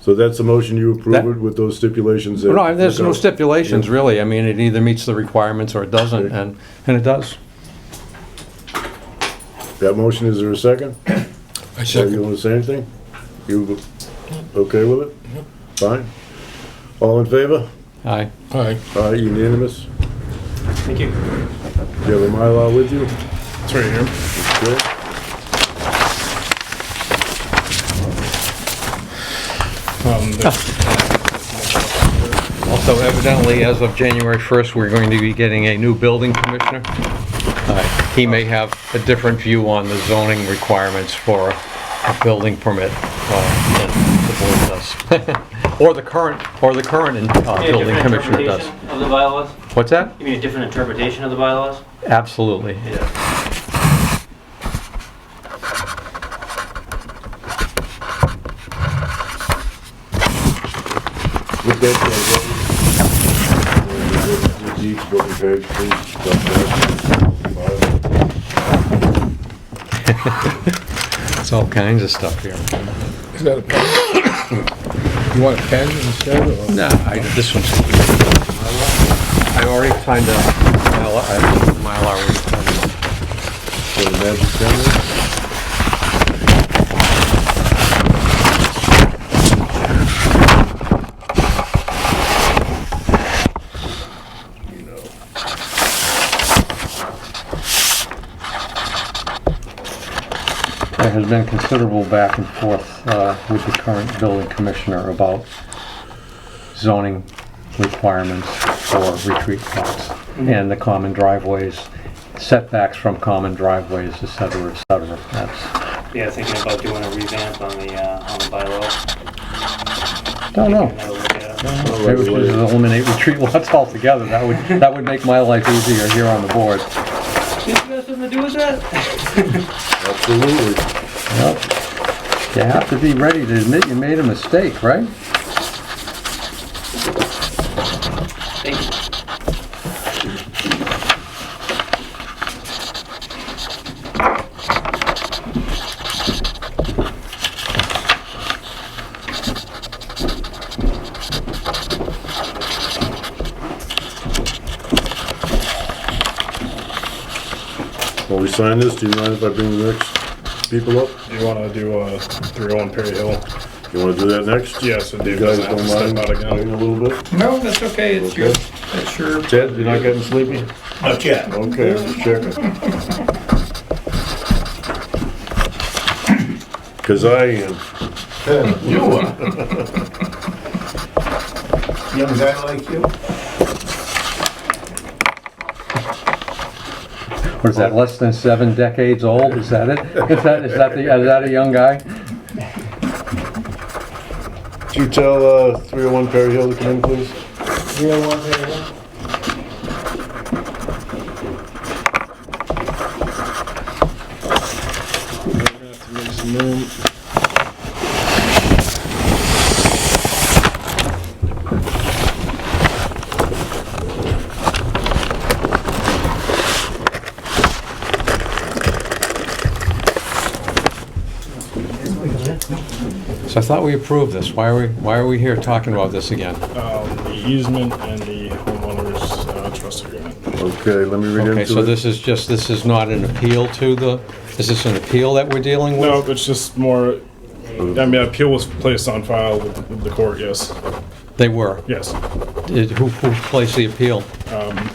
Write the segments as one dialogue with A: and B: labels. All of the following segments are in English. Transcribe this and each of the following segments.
A: So that's the motion you approve
B: That-
A: it with those stipulations? that-
B: No, there's no stipulations,
A: Yeah.
B: really. I mean, it either meets the requirements or it doesn't,
A: Okay.
B: and, and it does.
A: That motion, is there a second?
C: I
A: Or You
C: second.
A: want to say anything? You okay with it? Fine. All in favor?
B: Aye.
C: Aye.
A: All right, unanimous?
D: Thank you.
A: Do you have a Mylar with you?
C: It's right here.
A: Good.
C: Um, the-
B: Also evidently, as of January 1st, we're going to be getting a new building commissioner. Uh, He may have a different view on the zoning requirements for a building permit uh, than the board does. Or the current, or the current uh,
D: You mean a
B: building
D: different
B: commissioner does.
D: interpretation Of the bylaws?
B: What's that?
D: You mean a different interpretation of the bylaws?
B: Absolutely.
D: Yeah.
A: With that, uh, what- Deeds, what we paid, please, don't forget.
B: It's all kinds of stuff here.
C: Is that a pen? You want a pen instead or?
B: No, I, this one's. I already signed a Mylar, I- Mylar was-
A: So the magic pen there?
B: There has been considerable back and forth uh, with the current building commissioner about zoning requirements for retreat lots and the common driveways, setbacks from common driveways, et cetera, et cetera. That's,
D: Yeah, thinking about doing a revamp on the, uh, on the bylaw.
B: don't
D: Taking
B: know.
D: another look at it.
B: Maybe we should just eliminate retreat lots altogether. That would, that would make my life easier here on the board.
D: Did you have something to do with that?
A: Absolutely.
B: Yep. You have to be ready to admit you made a mistake, right?
D: Thank you.
A: While we sign this, do you mind if I bring the next people up?
C: You wanna do, uh, three on Perry Hill?
A: You wanna do that next?
C: Yes, and
A: You
C: Dave
A: guys
C: doesn't have
A: don't
C: to step
A: mind
C: out
A: waiting
C: again.
A: a little bit?
E: No, that's okay, it's your, it's your,
A: Ted, you're not getting sleepy?
E: not yet.
A: Okay, just checking. Cause I uh, am.
E: You are. Young guy like you?
B: What is that, less than seven decades old? Is that it? Is that, is that the, is that a young guy?
A: Could you tell, uh, three oh one Perry Hill to come in, please?
C: oh
B: So I thought we approved this. Why are we, why are we here talking about this again?
C: Um, the easement and the homeowners uh, trust agreement.
A: Okay, let me read into it.
B: Okay, so this is just, this is not an appeal to the, is this an appeal that we're dealing with?
C: No, it's just more, I mean, appeal was placed on file with with the court, yes,
B: They were.
C: yes.
B: Did- Who, who placed the appeal?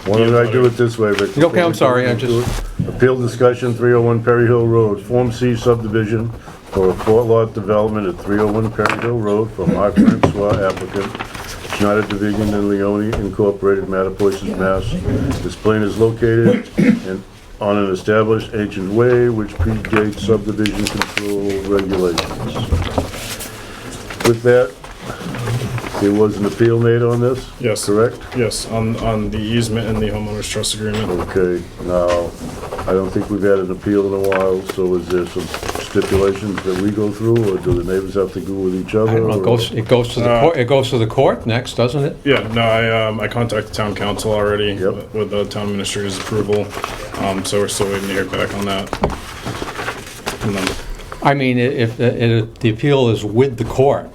A: Why don't I do it this way, Vic?
B: Okay, I'm sorry, I just-
A: Appeal discussion, 301 Perry Hill Road, Form C subdivision for a four-lot development at 301 Perry Hill Road for Mark Francois applicant, Schneider Division and Leone Incorporated, Mattapoisett, Mass. This plane is located in- on an established ancient way which predates subdivision control regulations. With that, there was an appeal made on this?
C: Yes.
A: Correct?
C: Yes, on, on the easement and the homeowners trust agreement.
A: Okay, now, I don't think we've had an appeal in a while, so is there some stipulations that we go through, or do the neighbors have to go with each
B: I
A: other?
B: don't know, it goes, it goes to the court, it goes to the court next, doesn't it?
C: Yeah, no, I, um, I contacted town council already
A: Yep.
C: with the town administrator's approval, um, so we're still waiting to hear back on that. And then
B: uh, I mean, i- if, if the appeal is with the court,